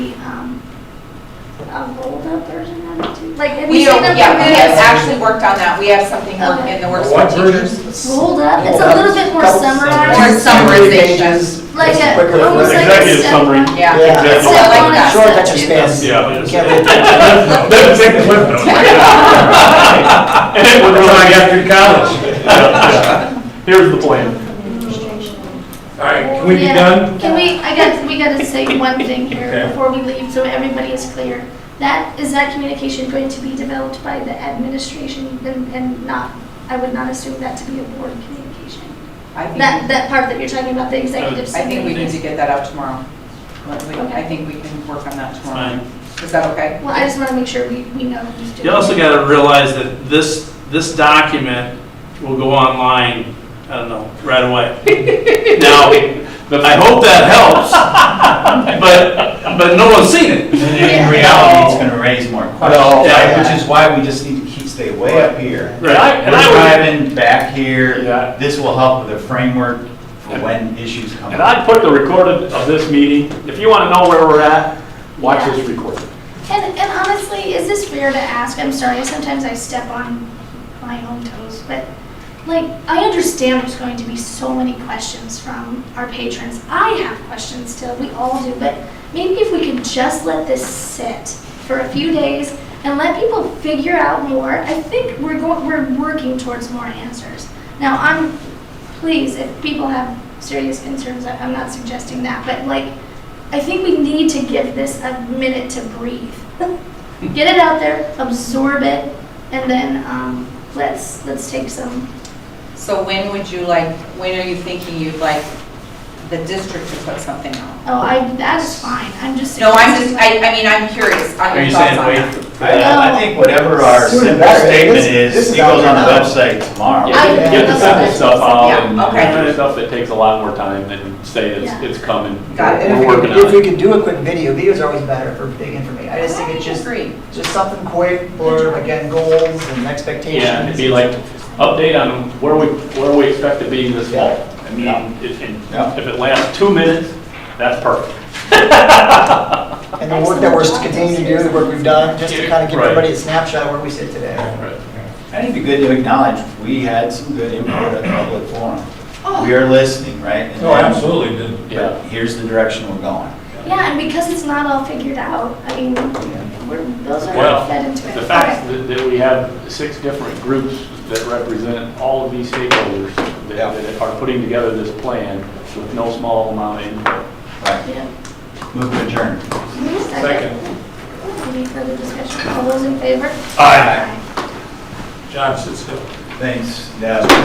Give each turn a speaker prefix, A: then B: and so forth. A: um, rolled up version of it too? Like, have you
B: We
A: seen
B: don't,
A: them?
B: yeah, we have
A: from
B: actually worked on that, we have something work- in the works for
C: What
B: teachers.
C: version?
A: the- Rolled up, it's a little bit more
D: Couple
A: summarized,
B: summarization.
A: like
D: It's
A: a,
D: quicker
A: almost like a
E: Executive
A: step
E: summary.
A: one.
B: Yeah.
D: Yeah.
E: Executive
A: Step
B: like
A: one and
B: that. Short
A: step
D: but your
A: two.
D: spans.
E: Yeah, it is.
D: Can't really-
C: Doesn't take the cliff notes.
E: And it would
C: We're going
E: run again.
C: after college.
E: Here's the plan.
C: All right, can we be
A: Yeah.
C: done?
A: Can we, I got, we gotta say one thing
C: Okay.
A: here before we leave, so everybody is clear. That, is that communication going to be developed by the administration and, and not, I would not assume that to be a board communication?
B: I
A: That,
B: think,
A: that part that you're talking about, the executive
B: I think we
A: summary.
B: need to get that out tomorrow. We- I think we can work on that tomorrow. Is that okay?
A: Well, I just wanna make sure we, we know who's doing
F: You also
A: it.
F: gotta realize that this, this document will go online, I don't know, right away. Now, I hope that helps, but, but no one's seen it.
G: In reality, it's gonna raise more
D: No,
G: questions, right?
F: yeah.
G: which is why we just need to keep, stay way up here.
F: Right. And I-
G: We're
F: and I would-
G: driving back
E: Yeah.
G: here, this will help with a framework for when issues come
E: And
G: up.
E: I put the recorded of this meeting, if you want to know where we're at, watch this recorded.
A: And, and honestly, is this fair to ask? I'm sorry, sometimes I step on my own toes, but like, I understand there's going to be so many questions from our patrons. I have questions still, we all do, but maybe if we could just let this sit for a few days and let people figure out more, I think we're going, we're working towards more answers. Now, I'm, please, if people have serious concerns, I- I'm not suggesting that, but like, I think we need to give this a minute to breathe. Get it out there, absorb it, and then um, let's let's take some.
B: So when would you like, when are you thinking you'd like the district to put something out?
A: Oh, I that's fine. I'm just.
B: No, I'm
A: suggesting,
B: just, I, I mean, I'm curious on
F: Are
B: your
F: you
B: thoughts
F: saying
B: on that.
F: wait?
G: I, I think whatever our
D: Sooner
G: simple
D: better.
G: statement
D: This- this
G: is,
D: is
G: it goes on
D: out
G: the
D: there now.
G: website tomorrow.
A: Yeah. I-
E: Get the simple stuff out and
B: Yeah, okay.
E: and the stuff that takes a lot more time than say it's,
A: Yeah.
E: it's coming.
B: Got it.
E: We're working
D: Uh, If
E: on
D: we
E: it.
D: could do a quick video, videos are always better for big information. I just think
B: I
D: it's just,
B: agree.
D: just something quick for, again, goals and expectations.
E: Yeah, it'd be like, update on where we, where we expect to be this fall. I mean, if,
G: Yeah.
E: if it lasts two minutes, that's perfect.
D: And the work that we're continuing to do, the work we've done, just to kind of give
E: Right.
D: everybody a snapshot of where we sit today.
G: I think it'd be good to acknowledge, we had some good input at the public
A: Oh,
D: Oh.
G: forum. We are listening, right? And
C: No, absolutely, didn't.
E: Yeah.
G: But here's the direction we're going.
A: Yeah, and because it's not all figured out, I mean, we're, those are
E: Well,
A: fed into it.
E: The fact that, that we have six different groups that represent all of these stakeholders
G: Yeah.
E: that, that are putting together this plan with no small amount of input.
G: Right,
A: Okay. Yeah.
G: move to adjourn.
C: Second.
A: Any further discussion? All those in favor?
G: Aye.
C: John sits still.
G: Thanks, yeah.